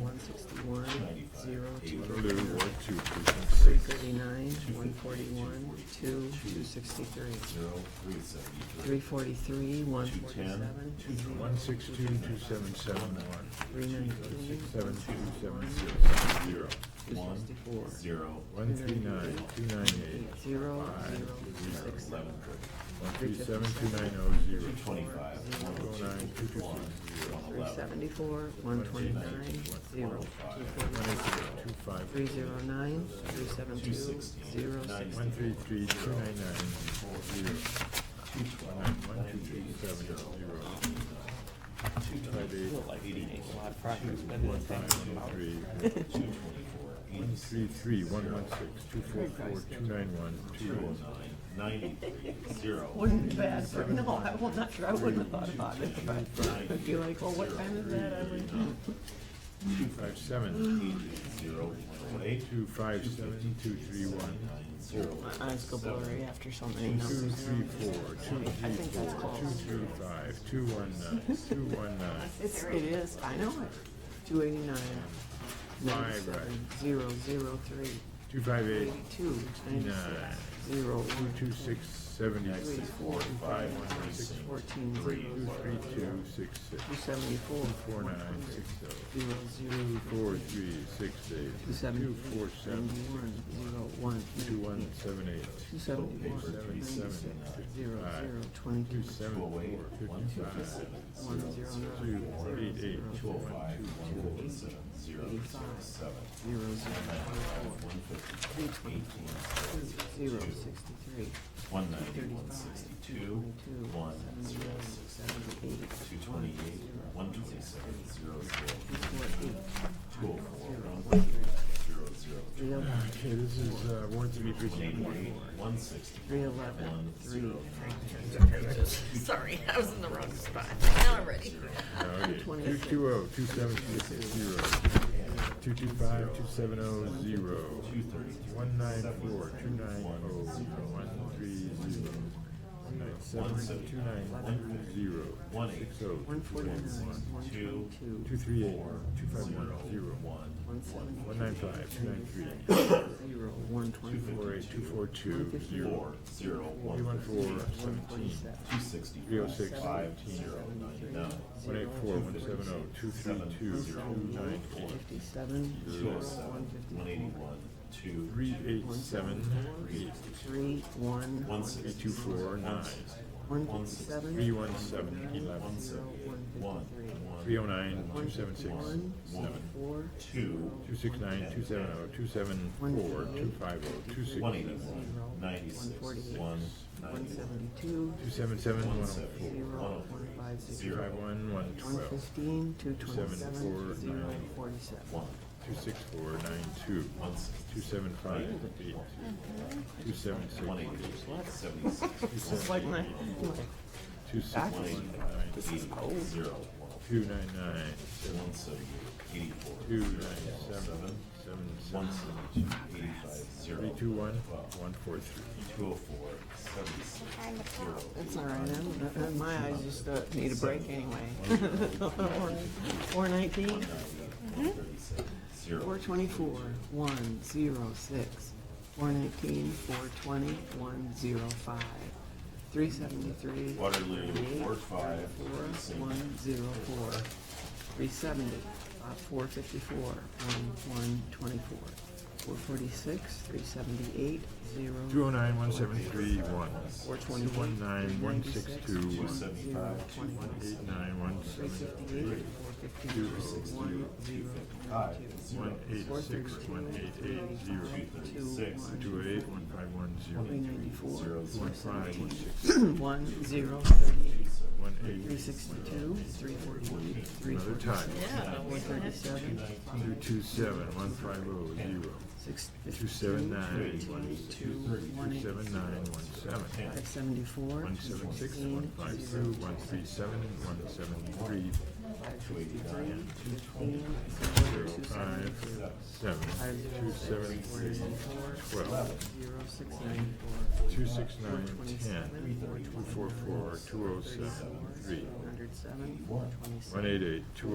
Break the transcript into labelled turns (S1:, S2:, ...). S1: one sixty-one, zero, two
S2: Blue,
S1: eighty-nine,
S2: one, two, three,
S1: three
S2: six,
S1: thirty-nine, one forty-one, two, two sixty-three,
S3: Zero, three seventy-three.
S1: three forty-three, one forty-seven,
S2: one, six, two, two, seven, seven, one,
S1: three nineteen,
S2: seven, two, seven,
S1: one,
S2: zero,
S3: Zero.
S1: two
S3: One,
S1: sixty-four,
S3: zero,
S2: one, three, nine, two, nine,
S1: eight,
S2: eight,
S1: zero,
S2: Five,
S1: zero,
S3: zero,
S1: six, seven,
S3: eleven,
S2: one, three, seven, two, nine, oh, zero,
S3: two twenty-five, one oh
S2: Zero, nine, two,
S3: two,
S2: two,
S3: one, one
S1: three
S3: eleven.
S1: seventy-four, one twenty-nine, zero, two
S2: one,
S1: forty,
S2: eight, zero, two, five,
S1: three zero nine, three seven two, zero, six,
S2: one, three, three, two, nine, nine, zero,
S3: Two twelve,
S2: one, two, two, seven, zero, five, eight, one, three,
S3: two twenty-four,
S2: one,
S3: eighty-six,
S2: three, three, one, one, six, two, four, four, two, nine, one, two,
S3: zero, nine, ninety-three, zero.
S4: Wouldn't be bad for, no, I, well, not sure, I wouldn't have thought about it, but if you're like, well, what time is that, I would,
S2: two, five, seven,
S3: Eighty, zero, twenty-eight,
S2: two, five, seven, two, three, one,
S3: nine, zero,
S4: my eyes go blurry after so many
S2: two,
S4: numbers.
S2: three, four, two,
S4: I
S2: three,
S4: think that's
S2: four, two,
S4: close.
S2: three, five, two, one, nine, two, one, nine,
S4: It's, it is, I know it.
S1: two eighty-nine,
S2: five, right,
S1: ninety-seven, zero, zero, three,
S2: two, five, eight,
S1: eighty-two, ninety-six,
S2: nine,
S1: zero,
S2: two,
S1: one,
S2: two, six, seventy-six,
S3: four, five, one, six,
S1: fourteen,
S2: two,
S1: zero,
S2: three, two, six, six,
S1: two seventy-four,
S2: four,
S1: one
S2: nine,
S1: hundred,
S2: six, oh,
S1: zero, zero,
S2: two, four, three, six, eight,
S1: two
S2: two,
S1: seventy,
S2: four, seven,
S1: ninety-one, zero, one,
S2: two, one,
S1: nineteen,
S2: seven, eight,
S1: two seventy-one,
S2: seven,
S1: ninety-six,
S2: seven,
S1: zero,
S2: five,
S1: zero,
S2: two,
S1: twenty-two,
S2: seven,
S3: two
S2: four,
S3: oh eight, one,
S2: fifty-five,
S3: fifty-seven,
S1: one,
S3: zero,
S1: zero,
S2: two,
S1: nine, zero,
S2: eight, eight,
S1: zero,
S3: two oh
S2: one,
S3: five,
S2: two,
S3: one forty-seven, zero, zero, seven,
S1: zero, zero,
S3: one fifty, eighteen,
S1: four, zero, sixty-three,
S3: one ninety, one sixty-two,
S1: twenty-two,
S3: one, zero,
S1: seventy-one, seventy-eight,
S3: two twenty-eight, one twenty-seven, zero, zero,
S1: two forty,
S3: two oh four, one fifty, zero, zero,
S1: three hundred.
S2: Okay, this is, uh, warrant to be presented.
S3: eighty-eight, one sixty,
S1: Three eleven, three,
S5: Sorry, I was in the wrong spot. Now I'm ready.
S2: Two two oh, two seven six zero, two two five, two seven oh zero, one nine four, two nine oh, one three zero, one nine seven, two nine zero,
S3: one eight,
S2: six oh,
S1: one forty-nine, one
S3: two,
S2: two
S1: twenty-two,
S2: three eight, two five one zero,
S3: one,
S1: one seventy,
S2: one nine five, two nine three,
S1: zero, one
S2: four
S1: twenty-four,
S2: eight, two four two, zero,
S3: four, zero,
S2: three one
S3: one,
S2: four,
S1: one
S2: seventeen,
S1: forty-seven,
S3: two sixty,
S2: three oh six,
S3: five,
S2: seventeen,
S3: zero, ninety-nine,
S2: one eight four, one seven oh, two three two, two nine four,
S1: fifty-seven,
S3: two
S1: zero,
S3: oh seven,
S1: one
S3: one
S1: fifty-four,
S3: eighty-one, two,
S2: three eight seven, eight,
S1: three, one,
S3: one
S2: three
S3: sixty,
S2: two four, nine,
S1: one fifty-seven,
S2: three
S1: zero,
S2: one seven, eleven,
S1: one
S3: one,
S1: fifty-three,
S3: one,
S2: Three oh nine,
S1: one
S2: two seven six,
S1: fifty-one,
S2: seven.
S1: four,
S3: two,
S2: Two six nine, two seven oh, two seven four, two five oh, two six,
S3: one
S2: two
S3: eighty-one, ninety-six, one,
S1: one
S3: ninety-one,
S1: seventy-two,
S2: seven seven, one oh
S1: zero,
S2: four,
S1: one five six,
S2: two five one, one
S1: one
S2: twelve,
S1: fifteen, two twenty-seven,
S2: four,
S1: zero,
S2: nine.
S1: forty-seven,
S3: one,
S2: two six four, nine two,
S3: one sixty,
S2: two seven five, eight, two seven six,
S3: one eighty, seventy-six,
S4: It's like my,
S2: two six one,
S3: one eighty-nine,
S2: nine,
S3: eighty, zero, one,
S2: two nine nine,
S3: one seventy-eight, eighty-four,
S2: two
S3: zero,
S2: nine
S3: seven,
S2: seven, seven
S3: one
S2: seven,
S3: seventy-two, eighty-five,
S2: three
S3: zero,
S2: two one, one four three.
S3: two oh four, seventy-six, zero,
S4: it's all right, I'm- uh, uh, my eyes just uh, need a break anyway.
S1: four nineteen,
S3: one thirty-seven,
S1: Four
S3: zero,
S1: twenty-four, one, zero, six, four nineteen, four twenty, one, zero, five, three seventy-three,
S3: Waterloo, four five,
S1: four,
S3: thirty-six,
S1: one, zero, four, three seventy, uh, four fifty-four, one, one, twenty-four, four forty-six, three seventy-eight,
S2: Two
S1: zero,
S2: oh nine, one seven three, one,
S1: four
S2: two one
S1: twenty-one,
S2: nine, one six two,
S3: two
S2: one,
S3: seventy-five, two forty-six,
S2: eight nine, one
S1: three
S2: seven
S1: fifty-eight, four fifteen, one, zero,
S3: five,
S2: One
S3: zero,
S2: eight
S1: four
S2: six,
S1: thirty-two,
S2: one eight eight, zero,
S3: six,
S2: two oh eight, one five one, zero,
S1: three ninety-four,
S3: zero, zero,
S1: four
S2: five, one
S1: seventeen,
S2: six,
S1: one, zero, thirty-eight,
S2: one
S1: Three
S2: eight,
S1: sixty-two, three forty-one, three
S2: another
S1: forty-six,
S2: time,
S5: Yeah.
S1: one thirty-seven,
S2: two two seven, one five oh, zero,
S1: six
S2: two
S1: fifty-two,
S2: seven nine, one six,
S1: two, one
S2: two seven
S1: eighty-six,
S2: nine, one seven,
S1: five seventy-four,
S2: one
S1: two
S2: seven six,
S1: sixteen,
S2: one five two,
S1: zero,
S2: one three seven, one seven three,
S1: five fifty-three, fifteen, zero, two seventy-two,
S2: seven,
S1: five
S2: two
S1: zero
S2: seven
S1: six, four
S2: three,
S1: ninety-four,
S2: twelve,
S1: zero, six ninety-four,
S2: two six
S1: four
S2: nine, ten,
S1: twenty-seven, four
S2: two four four, two oh seven, three,
S1: hundred seven, four twenty-seven.
S2: one eight eight, two oh